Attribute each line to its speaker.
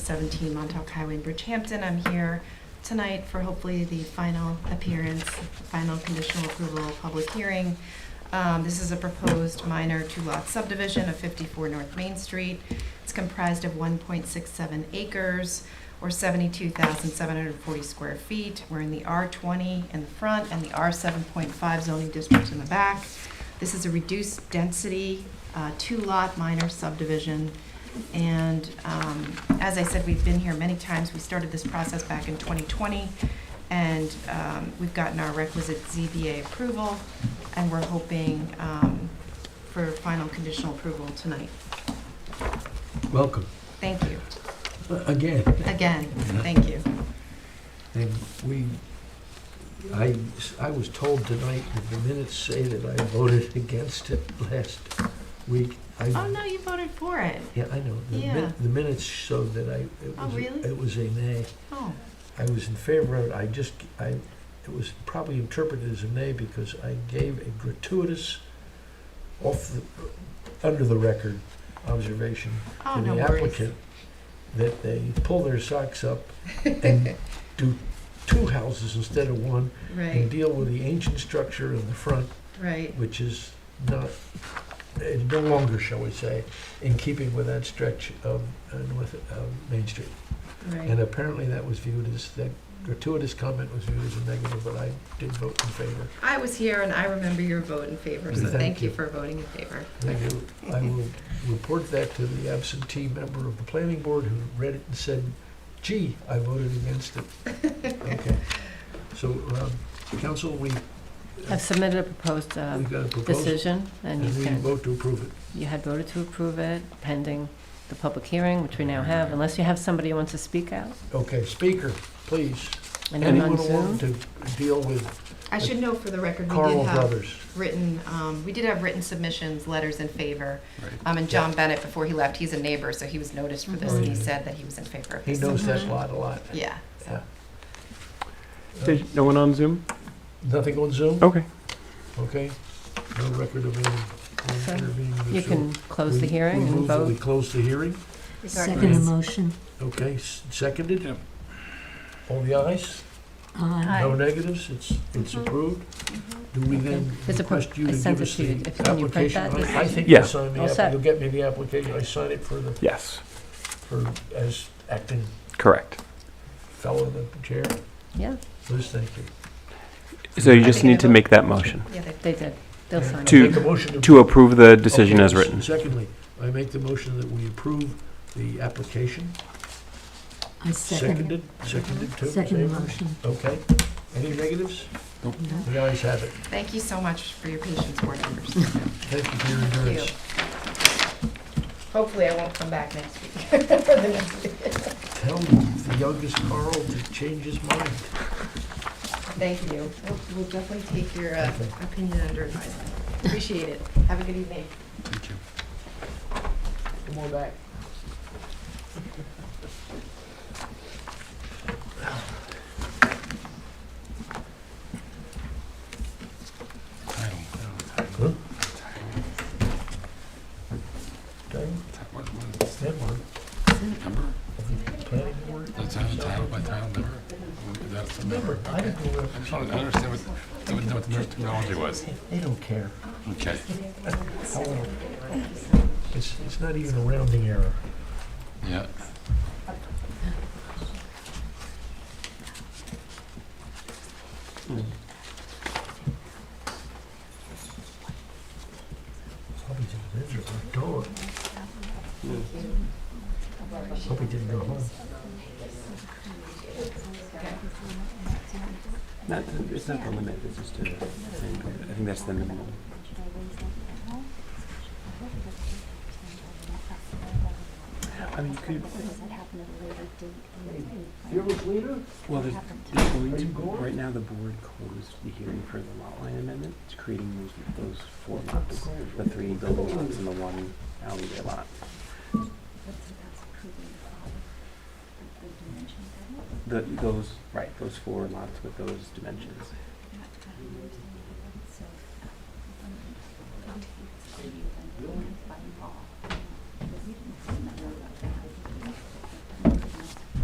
Speaker 1: 17 Montauk Highway in Bridgehampton. I'm here tonight for hopefully the final appearance, final conditional approval, public hearing. Um, This is a proposed minor two-lot subdivision of 54 North Main Street. It's comprised of 1.67 acres or 72,740 square feet. We're in the R20 in the front and the R7.5 zoning districts in the back. This is a reduced density, uh, two-lot minor subdivision. And um, as I said, we've been here many times. We started this process back in 2020, and um, we've gotten our requisite ZBA approval, and we're hoping um, for final conditional approval tonight.
Speaker 2: Welcome,
Speaker 1: Thank you.
Speaker 2: uh, again,
Speaker 1: Again, thank you.
Speaker 2: and we, I, I was told tonight that the minutes say that I voted against it last week. I-
Speaker 1: Oh, no, you voted for it.
Speaker 2: Yeah, I know. The min-
Speaker 1: Yeah.
Speaker 2: The minutes showed that I, it
Speaker 1: Oh,
Speaker 2: was,
Speaker 1: really?
Speaker 2: it was a nay.
Speaker 1: Oh,
Speaker 2: I was in favor of it, I just, I, it was probably interpreted as a nay because I gave a gratuitous, off the, under the record observation
Speaker 1: oh,
Speaker 2: to
Speaker 1: no
Speaker 2: the
Speaker 1: worries.
Speaker 2: applicant that they pull their socks up and do two houses instead of one and
Speaker 1: Right,
Speaker 2: deal with the ancient structure in the front,
Speaker 1: right,
Speaker 2: which is not, eh, no longer, shall we say, in keeping with that stretch of uh, North uh, Main Street. And
Speaker 1: right.
Speaker 2: apparently that was viewed as, that gratuitous comment was viewed as a negative, but I did vote in favor.
Speaker 1: I was here, and I remember your vote in favor, so
Speaker 2: Thank
Speaker 1: thank you
Speaker 2: you.
Speaker 1: for voting in favor.
Speaker 2: I will, I will report that to the absentee member of the planning board who read it and said, gee, I voted against it. Okay. So, um, council, we,
Speaker 3: I've submitted a proposed uh,
Speaker 2: we've got a proposal,
Speaker 3: decision, and
Speaker 2: and
Speaker 3: you
Speaker 2: we
Speaker 3: can,
Speaker 2: vote to approve it.
Speaker 3: you had voted to approve it pending the public hearing, which we now have, unless you have somebody who wants to speak out,
Speaker 2: Okay, speaker, please.
Speaker 3: and I'm on
Speaker 2: Anyone want
Speaker 3: Zoom.
Speaker 2: to deal with
Speaker 1: I should know for the record, we did
Speaker 2: Carl
Speaker 1: have
Speaker 2: Brothers?
Speaker 1: written, um, we did have written submissions, letters in favor. Um, and John Bennett, before he left, he's a neighbor, so he was noticed for this, and he
Speaker 2: Mhm.
Speaker 1: said that he was in favor of
Speaker 2: He
Speaker 1: this.
Speaker 2: knows that
Speaker 1: Mhm.
Speaker 2: lot a lot.
Speaker 1: Yeah, so.
Speaker 2: Yeah.
Speaker 4: There's no one on Zoom?
Speaker 2: Nothing on Zoom,
Speaker 4: Okay.
Speaker 2: okay? No record of
Speaker 3: So,
Speaker 2: any intervening.
Speaker 3: You can close the
Speaker 2: We-
Speaker 3: hearing
Speaker 2: we
Speaker 3: and
Speaker 2: move that We
Speaker 3: vote.
Speaker 2: close the hearing?
Speaker 5: Second emotion.
Speaker 2: Okay, s- seconded? All the ayes?
Speaker 5: Aye.
Speaker 2: No negatives, it's, it's
Speaker 1: Mhm.
Speaker 2: approved? Do we then
Speaker 3: It's Mm-hmm. a pro-
Speaker 2: request you
Speaker 3: I
Speaker 2: to
Speaker 3: sent
Speaker 2: give
Speaker 3: it
Speaker 2: us
Speaker 3: to you.
Speaker 2: the
Speaker 3: If- can you print
Speaker 2: application?
Speaker 3: that?
Speaker 2: I I think
Speaker 4: Yeah.
Speaker 2: you'll sign
Speaker 3: All
Speaker 2: the, app-
Speaker 3: set.
Speaker 2: you'll get me the application, I sign it for the,
Speaker 4: Yes,
Speaker 2: for, as acting
Speaker 4: correct.
Speaker 2: fellow of the chair.
Speaker 3: Yeah,
Speaker 2: Liz, thank you.
Speaker 4: So you
Speaker 1: I
Speaker 4: just
Speaker 1: think I
Speaker 4: need to
Speaker 1: vote-
Speaker 4: make that motion
Speaker 1: Yeah, they-
Speaker 3: they did. They'll sign
Speaker 4: To-
Speaker 3: it.
Speaker 2: Make a motion
Speaker 4: to approve the decision
Speaker 2: Okay,
Speaker 4: as
Speaker 2: s-
Speaker 4: written.
Speaker 2: Secondly, I make the motion that we approve the application.
Speaker 5: I second,
Speaker 2: Seconded, seconded too.
Speaker 5: second
Speaker 2: same.
Speaker 5: emotion.
Speaker 2: Okay, any negatives?
Speaker 5: No.
Speaker 2: The ayes have it.
Speaker 1: Thank you so much for your patience, board members.
Speaker 2: Thank you for your
Speaker 1: Thank
Speaker 2: endurance.
Speaker 1: you. Hopefully, I won't come back next week. for the next meeting.
Speaker 2: Tell the youngest Carl to change his mind.
Speaker 1: Thank you. We'll- We'll definitely take your uh,
Speaker 2: Okay.
Speaker 1: opinion under advisement. Appreciate it. Have a good evening.
Speaker 2: Come on back. Huh? Tired? That one. Planning board?
Speaker 6: That's how title by title number? That's the
Speaker 2: Remember,
Speaker 6: number.
Speaker 2: I
Speaker 6: Okay.
Speaker 2: didn't know
Speaker 6: I just wanted to understand what, I wouldn't know what the nurse terminology was.
Speaker 2: that- they don't care.
Speaker 6: Okay.
Speaker 2: How little. It's, it's not even a rounding error.
Speaker 6: Yeah.
Speaker 2: Probably didn't answer our door. Hope he didn't go home.
Speaker 4: It's not the limit, it's just a, I think that's the minimum. I mean, could,
Speaker 2: You're a leader?
Speaker 4: well, there's, there's going to, right now, the board closed the hearing for the lot line amendment, it's creating those, those four lots, the three building lots and the one alleyway lot. The, those, right, those four lots with those dimensions.